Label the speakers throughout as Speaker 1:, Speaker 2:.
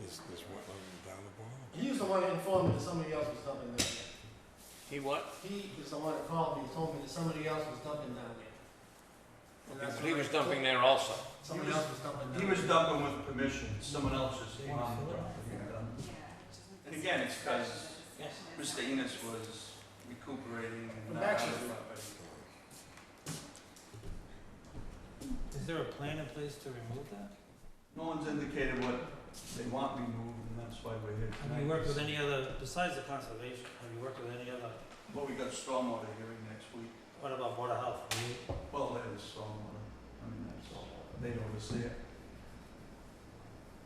Speaker 1: this, this wetland down the bottom.
Speaker 2: He was the one that informed me that somebody else was dumping down there.
Speaker 3: He what?
Speaker 2: He was the one that called me and told me that somebody else was dumping down there. And that's
Speaker 3: He
Speaker 2: what
Speaker 3: was
Speaker 2: I-
Speaker 3: dumping there also.
Speaker 2: Somebody else was dumping down
Speaker 4: He
Speaker 2: there.
Speaker 4: was dumping with permission, someone else just came on the property. and dumped. And again, it's because Mr. Enos was recuperating. uh,
Speaker 2: But
Speaker 4: not
Speaker 2: actually-
Speaker 4: on the property.
Speaker 5: Is there a plan in place to remove that?
Speaker 4: No one's indicated what they want removed, and that's why we're here tonight.
Speaker 5: Have you worked with any other, besides the conservation, have you worked with any other,
Speaker 4: Well, we got stormwater hearing next week.
Speaker 5: what about Board of Health? Have you-
Speaker 4: Well, that is stormwater. I mean, that's, they don't oversee it.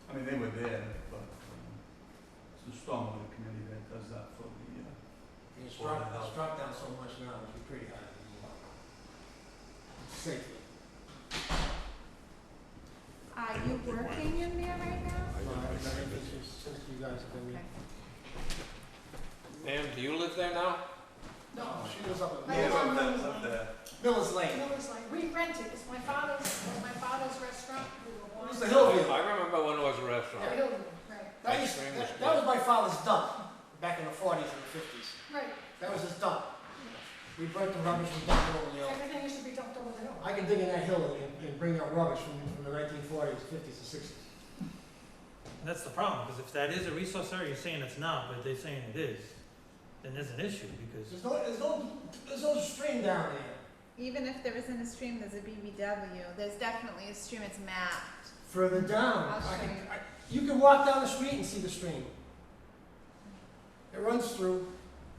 Speaker 4: I mean, they were there, but um, it's the stormwater committee that does that for the, uh,
Speaker 2: It's struck, it's struck down so much now, it'd be pretty hard to move on. Safely.
Speaker 1: Are you working
Speaker 6: in there right now?
Speaker 1: I
Speaker 2: No,
Speaker 1: didn't
Speaker 2: I- I
Speaker 1: make that
Speaker 2: think it's
Speaker 1: decision.
Speaker 2: just since you guys have been here.
Speaker 3: Ma'am, do you live there now?
Speaker 2: No, she was up at
Speaker 6: My
Speaker 4: Yeah,
Speaker 2: Miller's,
Speaker 6: mom-
Speaker 4: up there, up there.
Speaker 2: Miller's Lane.
Speaker 6: No, it's like, we rent it, it's my father's, it was my father's restaurant, we were
Speaker 2: It
Speaker 6: one.
Speaker 2: was the Hillview.
Speaker 3: I remember when it was a restaurant.
Speaker 6: Right, right,
Speaker 2: That
Speaker 3: Oh Ice
Speaker 2: used,
Speaker 3: cream was
Speaker 2: that,
Speaker 3: good.
Speaker 2: that was my father's dump, back in the forties and the fifties.
Speaker 6: right,
Speaker 2: That was his dump. We burnt the rubbish, we dumped it over the hill.
Speaker 6: everything used to be dumped over the hill.
Speaker 2: I can dig in that hill and, and bring out rubbish from, from the nineteen forties, fifties, and sixties.
Speaker 5: That's the problem, because if that is a resource area, you're saying it's not, but they're saying it is, then there's an issue, because
Speaker 2: There's no, there's no, there's no stream down there.
Speaker 7: Even if there isn't a stream, there's a BBW. There's definitely a stream. It's mapped.
Speaker 2: Further down,
Speaker 7: I'll
Speaker 2: I
Speaker 7: show
Speaker 2: can,
Speaker 7: you.
Speaker 2: I, you can walk down the street and see the stream. It runs through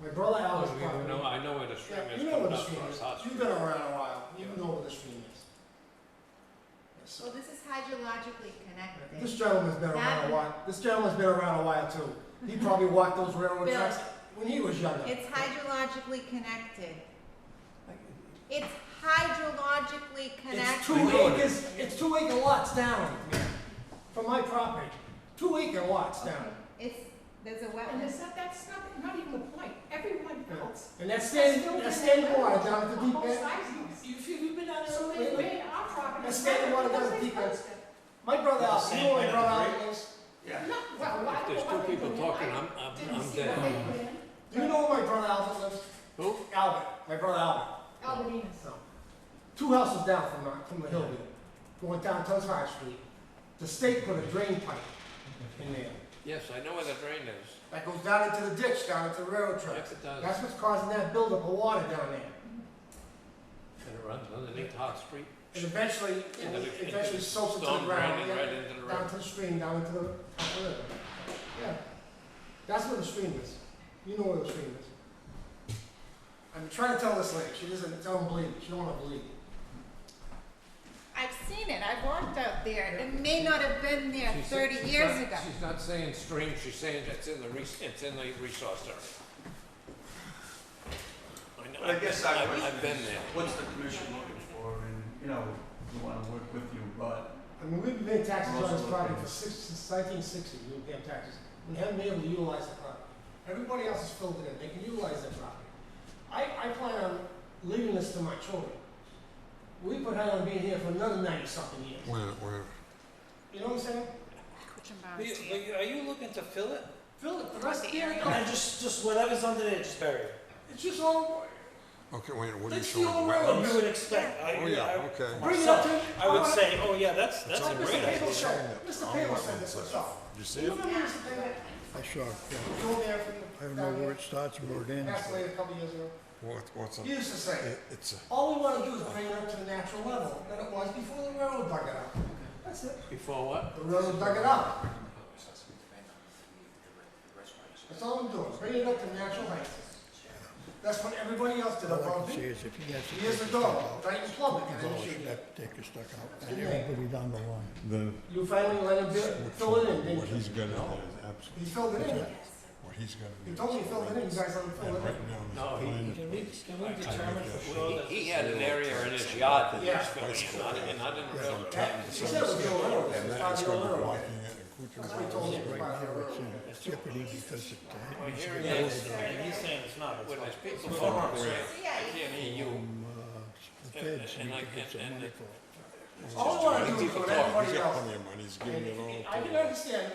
Speaker 2: my brother Al's
Speaker 3: Oh, you
Speaker 2: property.
Speaker 3: know- I know where the stream
Speaker 2: Yeah,
Speaker 3: is
Speaker 2: you know where
Speaker 3: coming
Speaker 2: the
Speaker 3: up
Speaker 2: stream
Speaker 3: from,
Speaker 2: is.
Speaker 3: it's hot
Speaker 2: You've
Speaker 3: stream.
Speaker 2: been around a while. You
Speaker 3: Yeah.
Speaker 2: know where the stream is. Yes, sir.
Speaker 7: Well, this is hydrologically connected.
Speaker 2: This gentleman's been around a
Speaker 7: That-
Speaker 2: while. This gentleman's been around a while too. He probably walked those railroad
Speaker 7: Bill.
Speaker 2: tracks when he was younger.
Speaker 7: It's hydrologically connected.
Speaker 2: Like,
Speaker 7: It's hydrologically
Speaker 2: It's
Speaker 7: connected.
Speaker 2: two acres, it's two acre lots down from my property. Two acre lots down.
Speaker 7: It's there's a
Speaker 6: And
Speaker 7: wetland.
Speaker 6: it's not, that's not, not even the point, everyone else.
Speaker 2: And that's standing, that's standing water down at the deep
Speaker 6: Both
Speaker 2: end.
Speaker 6: sides of it. If you've been out there,
Speaker 2: So
Speaker 6: so
Speaker 2: wait,
Speaker 6: they
Speaker 2: wait.
Speaker 6: made our property.
Speaker 2: That's standing water down at the
Speaker 6: Nothing
Speaker 2: deep end.
Speaker 6: posted.
Speaker 2: My brother Al, you know where my brother Al is?
Speaker 4: Yeah.
Speaker 6: No, well, why-
Speaker 3: If there's
Speaker 6: why
Speaker 3: two
Speaker 6: they
Speaker 3: people
Speaker 6: did it,
Speaker 3: talking,
Speaker 6: I
Speaker 3: I'm, I'm,
Speaker 6: Didn't
Speaker 3: I'm
Speaker 6: see what
Speaker 3: dead.
Speaker 6: they put in,
Speaker 2: Do you know where my brother Albert lives?
Speaker 3: Who?
Speaker 2: Albert, my brother Albert.
Speaker 6: Albertina's.
Speaker 2: So, two houses down from, the- from the hillview, going down Tons High Street. The state put a drain pipe in there
Speaker 3: Yes, I know where the drain is.
Speaker 2: that goes down into the ditch, down into the railroad
Speaker 3: Yes,
Speaker 2: tracks.
Speaker 3: it does.
Speaker 2: That's what's causing that buildup of water down there.
Speaker 3: And it runs underneath Hot Street.
Speaker 2: And eventually,
Speaker 3: into the- into
Speaker 2: it eventually
Speaker 3: the
Speaker 2: soaks into the
Speaker 3: storm
Speaker 2: ground,
Speaker 3: draining
Speaker 2: yeah,
Speaker 3: Right into the
Speaker 2: down
Speaker 3: river.
Speaker 2: to the stream, down into the, up the river. Yeah, that's where the stream is. You know where the stream is. I'm trying to tell this lady, she doesn't, it's unbelievable, she don't wanna believe it.
Speaker 7: I've seen it. I've walked out there. It may not have been there 30 years ago.
Speaker 3: She's not saying stream, she's saying it's in the, res- it's in the resource area. I know,
Speaker 4: But I
Speaker 3: I've
Speaker 4: guess
Speaker 3: been,
Speaker 4: our
Speaker 3: I've
Speaker 4: question
Speaker 3: I've been
Speaker 4: is,
Speaker 3: there.
Speaker 4: what's the commission looking for? And, you know, we want to work with you, but
Speaker 2: I mean, we've been paying taxes on this
Speaker 4: Most of the
Speaker 2: property for
Speaker 4: things.
Speaker 2: six, since nineteen sixty, we've been paying taxes. We haven't been able to utilize the property. Everybody else is filled it in, they can utilize their property. I, I plan on leaving this to my children. We put her on being here for another ninety-something years,
Speaker 1: Where, where,
Speaker 2: you know what I'm saying?
Speaker 7: Which
Speaker 3: Are
Speaker 7: embarrassed you.
Speaker 3: you- are you looking to fill it?
Speaker 2: Fill it, the rest of the area,
Speaker 5: And just, just whatever's under there, just bury it.
Speaker 2: it's just all,
Speaker 1: okay, wait, what are you
Speaker 2: Let's see
Speaker 1: showing?
Speaker 2: all
Speaker 1: Wetlands?
Speaker 2: around.
Speaker 5: You would expect, I,
Speaker 1: Oh, yeah,
Speaker 5: I,
Speaker 1: okay.
Speaker 2: bring it up to.
Speaker 5: I would say, oh yeah, that's, that's a
Speaker 2: Like
Speaker 5: great
Speaker 2: Mr. Pable
Speaker 5: idea.
Speaker 2: said, Mr. Pable said this himself.
Speaker 1: You see
Speaker 2: You
Speaker 1: it?
Speaker 2: remember Mr. Pable?
Speaker 8: I saw, it, yeah.
Speaker 2: Go there from.
Speaker 8: I don't know where it starts and where it ends.
Speaker 2: Passed away a couple years ago.
Speaker 1: What, what's up?
Speaker 2: He used to say,
Speaker 1: It- It's a,
Speaker 2: all we wanna do is bring it up to the natural level that it was before the railroad dug it up. That's it.
Speaker 3: Before what?
Speaker 2: The railroad dug it up. That's all I'm doing, bring it up to natural height. That's what everybody else did
Speaker 8: All I
Speaker 2: above
Speaker 8: can say
Speaker 2: me.
Speaker 8: is if he has to.
Speaker 2: Years
Speaker 8: take
Speaker 2: ago,
Speaker 8: a
Speaker 2: Dyton Plumbing, I
Speaker 8: step out,
Speaker 2: initiated
Speaker 8: he's
Speaker 2: that.
Speaker 8: got to Take a stuck out,
Speaker 2: Good
Speaker 8: and
Speaker 2: night.
Speaker 8: everybody down the line.
Speaker 1: the,
Speaker 2: You finally let him do- fill it in,
Speaker 1: what
Speaker 2: didn't you?
Speaker 1: he's got out there is absolutely,
Speaker 2: He filled it in.
Speaker 1: what he's got to do.
Speaker 2: He told me he filled it in, you guys let him fill
Speaker 1: And
Speaker 2: it in.
Speaker 1: right now, this
Speaker 3: No, he-
Speaker 1: plan is-
Speaker 5: Can we, can we determine for sure that?
Speaker 3: He had an area in his yard that
Speaker 2: Yeah.
Speaker 3: he's filling, not, and not in the railroad.
Speaker 2: She said it was your railroad,
Speaker 1: And
Speaker 2: it's
Speaker 1: that
Speaker 2: not
Speaker 1: is
Speaker 2: your
Speaker 1: going to be
Speaker 2: railroad.
Speaker 1: blocking it and
Speaker 2: That's what he told
Speaker 1: Kuchen's
Speaker 2: me, it's
Speaker 8: Right
Speaker 2: about
Speaker 8: now,
Speaker 2: your
Speaker 8: it's
Speaker 2: railroad.
Speaker 8: in jeopardy because it, uh,
Speaker 3: Well, here it
Speaker 5: Yeah,
Speaker 3: is.
Speaker 5: it's- and he's saying it's not, it's
Speaker 3: When
Speaker 5: not.
Speaker 3: there's people
Speaker 5: It's
Speaker 3: farm,
Speaker 5: farm,
Speaker 3: I
Speaker 5: right?
Speaker 7: Yeah, you
Speaker 3: can't hear you.
Speaker 8: um, uh, the feds,
Speaker 3: And-
Speaker 8: and
Speaker 3: and
Speaker 8: he
Speaker 3: I-
Speaker 8: gets
Speaker 3: and-
Speaker 8: some
Speaker 3: and-
Speaker 8: money for it.
Speaker 2: All I wanna do is
Speaker 3: People
Speaker 2: put
Speaker 3: talk,
Speaker 2: everybody
Speaker 1: He's got
Speaker 2: else.
Speaker 1: plenty of money, he's
Speaker 2: And
Speaker 1: giving it all.
Speaker 2: I
Speaker 1: to
Speaker 2: can
Speaker 1: the-
Speaker 2: understand,